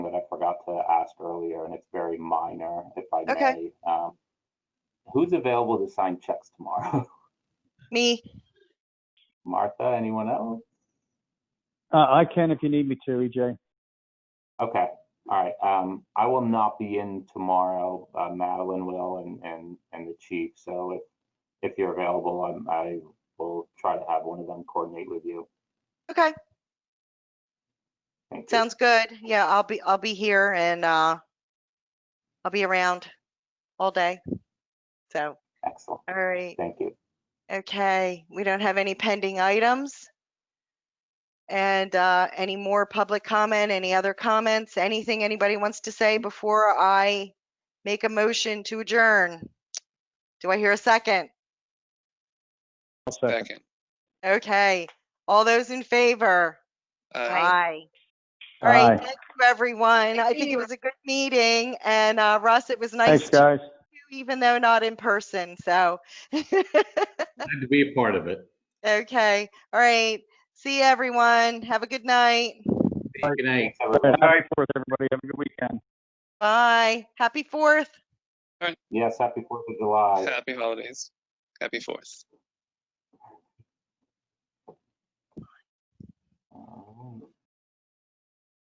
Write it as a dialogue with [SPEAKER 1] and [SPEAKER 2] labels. [SPEAKER 1] earlier, and it's very minor, if I
[SPEAKER 2] Okay.
[SPEAKER 1] may. Um, Who's available to sign checks tomorrow?
[SPEAKER 2] Me,
[SPEAKER 1] Martha, anyone else?
[SPEAKER 3] Uh, I can if you need me to, E EJ.
[SPEAKER 1] Okay, all right. Um, I will not be in tomorrow. Uh, Madeline will and, and, and the chief. So if, if you're available, I'm, I will try to have one of them coordinate with you.
[SPEAKER 2] okay,
[SPEAKER 1] Thank you.
[SPEAKER 2] sounds good. Yeah, I'll be, I'll be here and, uh, I'll be around all day. So,
[SPEAKER 1] Excellent.
[SPEAKER 2] all right,
[SPEAKER 1] Thank you.
[SPEAKER 2] okay, we don't have any pending items. And, uh, any more public comment, any other comments, anything anybody wants to say before I make a motion to adjourn? Do I hear a second?
[SPEAKER 3] I'll second.
[SPEAKER 4] Second.
[SPEAKER 2] Okay, all those in favor?
[SPEAKER 4] Aye.
[SPEAKER 2] Aye. All right,
[SPEAKER 3] Aye.
[SPEAKER 2] thank you, everyone. I think it was a good meeting, and uh, Russ, it was nice
[SPEAKER 3] Thanks,
[SPEAKER 2] to
[SPEAKER 3] guys.
[SPEAKER 2] see you, even though not in person, so.
[SPEAKER 5] Glad to be a part of it.
[SPEAKER 2] Okay, all right. See you, everyone. Have a good night.
[SPEAKER 5] Good night.
[SPEAKER 1] Thanks, everyone.
[SPEAKER 3] Happy Fourth, everybody. Have a good weekend.
[SPEAKER 2] Bye. Happy Fourth.
[SPEAKER 1] Yes, happy Fourth of July.
[SPEAKER 4] Happy holidays. Happy Fourth.
[SPEAKER 1] Um,